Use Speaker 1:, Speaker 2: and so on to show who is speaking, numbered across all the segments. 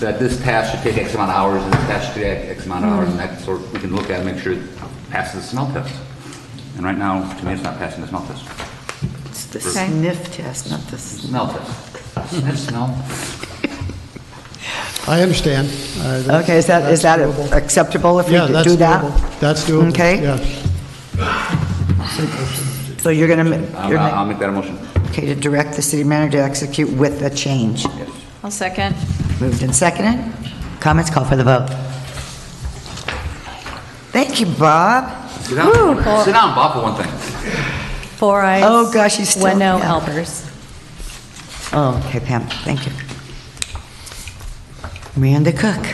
Speaker 1: that this task should take X amount of hours, and this task should take X amount of hours, and
Speaker 2: Mm.
Speaker 1: that sort, we can look at and make sure it passes the smell test. And right now, to me, it's not passing the smell test.
Speaker 3: It's the
Speaker 1: Okay.
Speaker 3: sniff test, not the, s-
Speaker 1: Smell test. Sniff, smell.
Speaker 4: I understand. Uh, that's-
Speaker 3: okay, is that, is that
Speaker 4: that's doable.
Speaker 3: acceptable if we
Speaker 4: Yeah,
Speaker 3: could
Speaker 4: that's
Speaker 3: do that?
Speaker 4: doable. That's doable.
Speaker 3: Okay.
Speaker 4: Yes.
Speaker 3: So you're going
Speaker 1: I'll, I'll
Speaker 3: to,
Speaker 1: make that a motion.
Speaker 3: okay, to direct the city manager to execute with a change.
Speaker 1: Yes.
Speaker 5: I'll second.
Speaker 3: Moved and seconded. Comments, call for the vote. Thank you, Bob.
Speaker 1: Sit down, sit down, Bob, for one thing.
Speaker 5: Four eyes.
Speaker 3: Oh, gosh, he's still-
Speaker 5: One no,
Speaker 3: yeah.
Speaker 5: Albers.
Speaker 3: Oh, okay, Pam, thank you. Amanda Cook.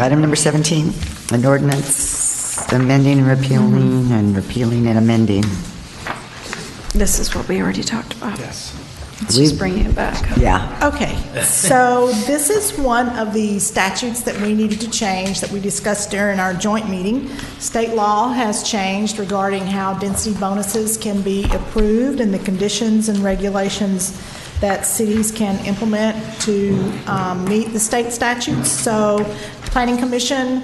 Speaker 3: Item number 17, an ordinance amending and repealing and repealing and amending.
Speaker 6: This is what we already talked about. Yes. Let's
Speaker 3: We-
Speaker 6: just bring it back.
Speaker 3: Yeah.
Speaker 2: Okay, so this is one of the statutes that we needed to change that we discussed during our joint meeting. State law has changed regarding how density bonuses can be approved and the conditions and regulations that cities can implement to um, meet the state statutes. So the Planning Commission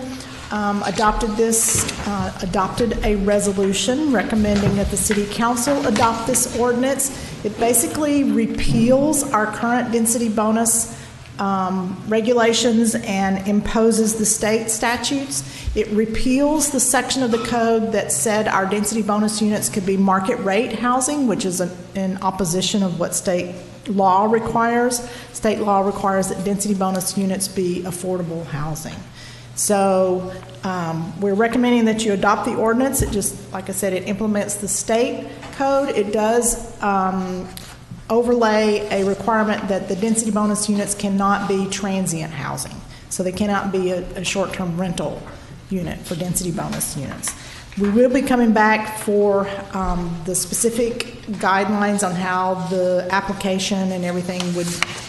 Speaker 2: um, adopted this, uh, adopted a resolution recommending that the city council adopt this ordinance. It basically repeals our current density bonus um, regulations and imposes the state statutes. It repeals the section of the code that said our density bonus units could be market rate housing, which is an- in opposition of what state law requires. State law requires that density bonus units be affordable housing. So um, we're recommending that you adopt the ordinance. It just, like I said, it implements the state code. It does um, overlay a requirement that the density bonus units cannot be transient housing. So they cannot be a a short-term rental unit for density bonus units. We will be coming back for um, the specific guidelines on how the application and everything would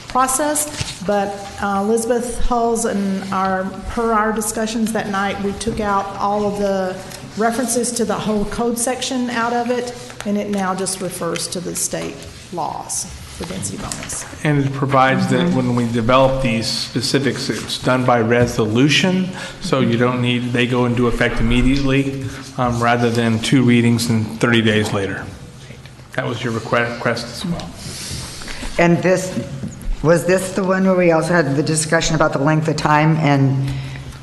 Speaker 2: process, but uh, Elizabeth Hulse and our, per our discussions that night, we took out all of the references to the whole code section out of it, and it now just refers to the state laws for density bonus.
Speaker 7: And it provides that when we develop these specifics, it's done by resolution, so you don't need, they go into effect immediately, um, rather than two readings and 30 days later. That was your request request as well.
Speaker 3: And this, was this the one where we also had the discussion about the length of time and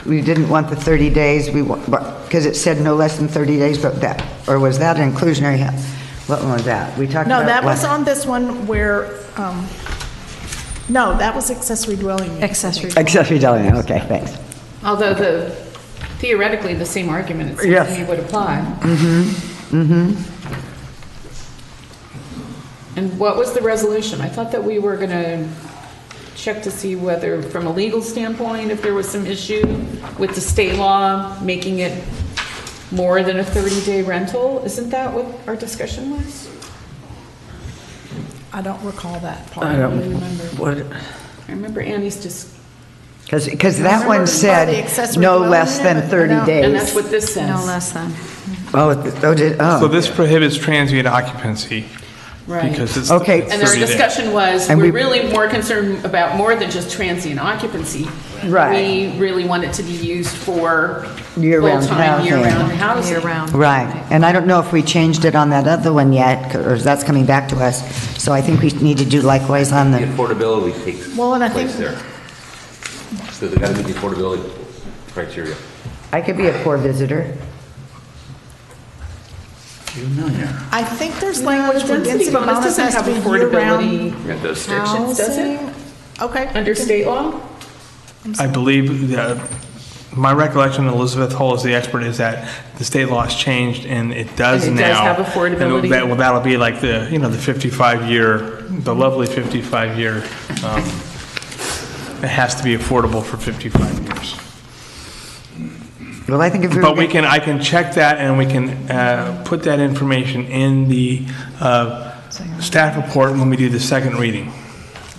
Speaker 3: we didn't want the 30 days, we, because it said no less than 30 days, but that, or was that an inclusionary? hou- What one was that? We talked about.
Speaker 2: No, that was
Speaker 3: what?
Speaker 2: on this one where, um, no, that was accessory dwelling unit.
Speaker 6: Accessory.
Speaker 3: Accessory dwelling, okay, thanks.
Speaker 8: Although the, theoretically, the same argument, it seems
Speaker 3: Yes.
Speaker 8: to me, would apply. Mm-hmm, mm-hmm. And what was the resolution? I thought that we were going to check to see whether, from a legal standpoint, if there was some issue with the state law making it more than a 30-day rental. Isn't that what our discussion was?
Speaker 2: I don't recall that part.
Speaker 8: I don't remember. I remember Annie's just,
Speaker 3: Because that one
Speaker 2: Remember by the
Speaker 3: said
Speaker 2: accessory
Speaker 3: no
Speaker 2: dwelling
Speaker 3: less than
Speaker 2: unit,
Speaker 3: 30
Speaker 2: no.
Speaker 8: and
Speaker 3: days.
Speaker 8: that's what this says.
Speaker 6: No less than.
Speaker 3: Oh, th- oh, did,
Speaker 7: So
Speaker 3: oh.
Speaker 7: this prohibits transient occupancy.
Speaker 8: Right.
Speaker 7: Because it's.
Speaker 3: Okay.
Speaker 7: it's
Speaker 8: And our
Speaker 7: 30 days.
Speaker 8: discussion was,
Speaker 3: And we-
Speaker 8: we're really more concerned about more than just transient occupancy.
Speaker 3: Right.
Speaker 8: We really want it to be used for
Speaker 3: Year-round
Speaker 8: full-time, year-round
Speaker 3: housing.
Speaker 8: housing.
Speaker 6: Year-round.
Speaker 3: Right, and I don't know if we changed it on that other one yet, or if that's coming back to us. So I think we need to do likewise on
Speaker 1: The
Speaker 3: the,
Speaker 1: affordability takes
Speaker 2: Well, and I
Speaker 1: place
Speaker 2: think-
Speaker 1: there. So they gotta meet the affordability criteria.
Speaker 3: I could be a poor visitor.
Speaker 2: I think there's language for
Speaker 8: The
Speaker 2: density
Speaker 8: bonus
Speaker 2: bonus
Speaker 8: doesn't
Speaker 2: has to
Speaker 8: have
Speaker 2: be year-round
Speaker 8: affordability restrictions, does it?
Speaker 2: housing. Okay.
Speaker 8: Under state law?
Speaker 7: I believe, uh, my recollection, Elizabeth Hull is the expert, is that the state law has changed, and it does
Speaker 8: And it
Speaker 7: now.
Speaker 8: does have
Speaker 7: And
Speaker 8: affordability.
Speaker 7: that- Well, that'll be like the, you know, the 55-year, the lovely 55-year, um, it has to be affordable for 55 years.
Speaker 3: Well, I think if we were...
Speaker 7: But we can, I can check that, and we can uh, put that information in the uh, staff report when we do the second reading.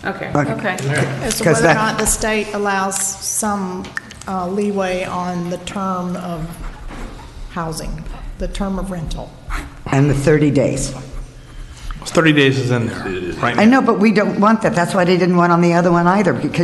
Speaker 8: Okay.
Speaker 3: Okay.
Speaker 2: As to
Speaker 3: 'Cause
Speaker 2: whether or
Speaker 3: that-
Speaker 2: not the state allows some uh, leeway on the term of housing, the term of rental.
Speaker 3: And the 30 days.
Speaker 7: 30 days is in there, right?
Speaker 3: I know, but we don't want that, that's why they didn't want on the other one either, because